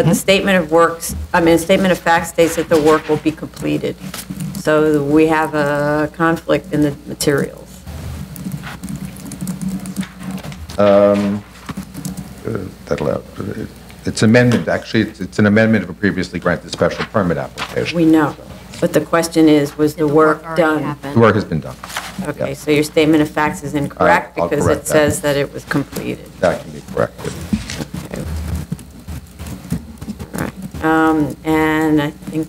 But Hmm? the statement of works, I mean, the statement of fact states that the work will be completed. So we have a conflict in the materials. that'll, uh, it's amendment, actually, it's it's an amendment of a previously granted special permit application. We know. But the question is, was the work already done? happened. The work has been done. Okay, so your statement of facts is incorrect All right, I'll because correct it that. says that it was completed. That can be corrected. Right. Um, And I think,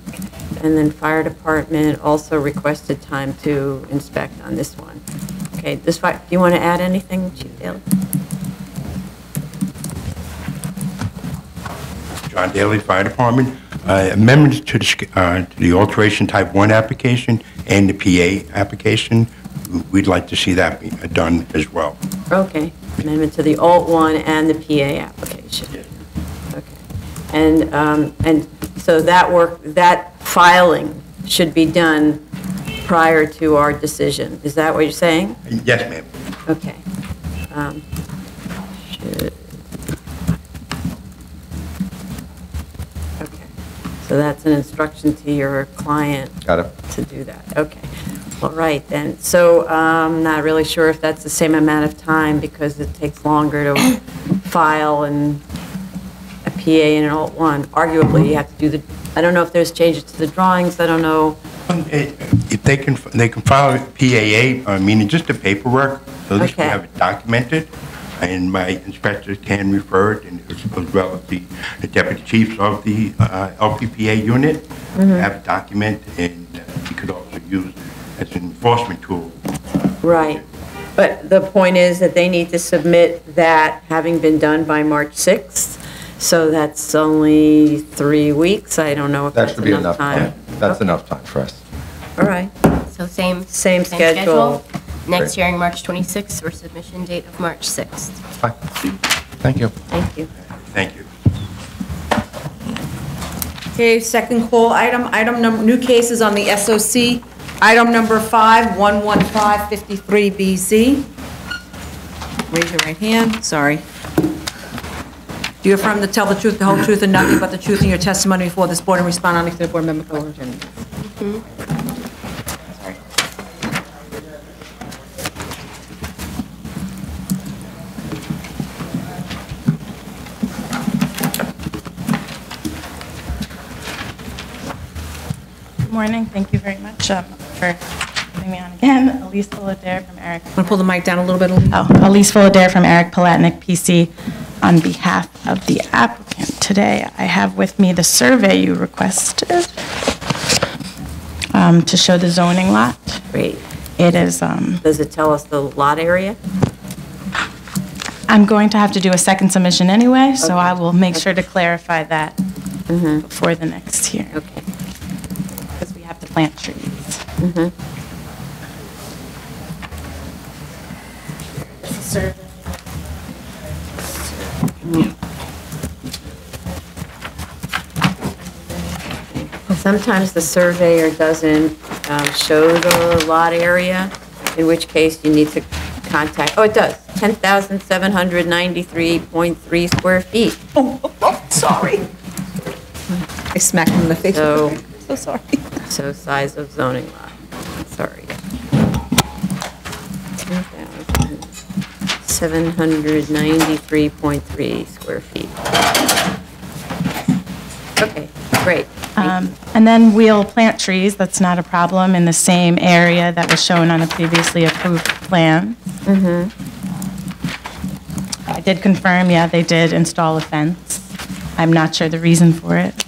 and then fire department also requested time to inspect on this one. Okay, this, fi- do you want to add anything, Chief Daley? John Daly, Fire Department. Uh, Amendments to the sch- uh, to the alteration type 1 application and the PA application, we'd like to see that be uh, done as well. Okay, amendment to the alt one and the PA application. Okay, And, um, and so that work, that filing should be done prior to our decision. Is that what you're saying? Yes, ma'am. Okay. Um, should- Okay. So that's an instruction to your client Got it? to do that, okay. All right, then, so um, I'm not really sure if that's the same amount of time, because it takes longer to file and a PA and an alt one. Arguably, you have to do the, I don't know if there's changes to the drawings, I don't know. Um, eh, If they can, they can file a PAA, uh, meaning just the paperwork, so at least we Okay. have it documented, and my inspectors can refer it, and as well as the the deputy chiefs of the uh, LPPA unit, have it documented, and uh, we could also use as an enforcement tool Right. But the point is that they need to submit that having been done by March 6th, so that's only three weeks, I don't know if That that's should be enough enough time. time. That's Okay. enough time for us. All right, So same. Same schedule. Next Great. hearing, March 26th, or submission date of March 6th. Fine. Thank you. thank you. Thank you. Okay, second call item, item number, new cases on the SOC, item number five, 11553BZ. Raise your right hand, sorry. Do you affirm to tell the truth, the whole truth, and nothing but the truth in your testimony before this board and respond honestly to the board member question? Good morning, thank you very much um, for having me on again. Elise Fullader from Eric. Want to pull the mic down a little bit? Elise? Oh, Elise Fullader from Eric Palatnik, PC. On behalf of the applicant, today I have with me the survey you requested um, to show the zoning lot. Great. It is, um, Does it tell us the lot area? I'm going to have to do a second submission anyway, so I Okay. will make sure to clarify that before the next hearing, Okay. because we have to plant trees. Sometimes the surveyor doesn't um, show the lot area, in which case you need to contact, oh, it does, 10,793.3 square feet. Oh, oh, oh, sorry. I smacked him in the face. So- So sorry. So size of zoning lot, sorry. 793.3 square feet. Okay, great. Um, And then we'll plant trees, that's not a problem, in the same area that was shown on a previously approved plan. I did confirm, yeah, they did install a fence. I'm not sure the reason for it.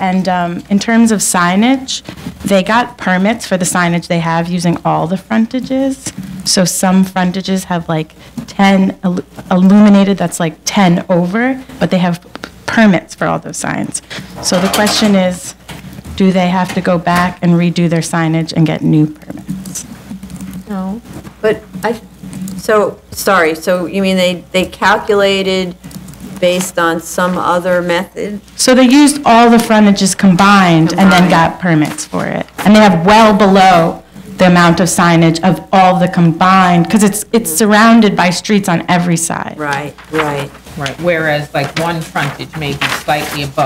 And um, in terms of signage, they got permits for the signage they have using all the frontages. So some frontages have like 10 illu- illuminated, that's like 10 over, but they have p- permits for all those signs. So the question is, do they have to go back and redo their signage and get new permits? No, but I, so, sorry, so you mean they, they calculated based on some other method? So they used all the frontages combined and then Combined. got permits for it. And they have well below the amount of signage of all the combined, because it's, it's surrounded by streets on every side. Right, right. Right, whereas like one frontage may be slightly above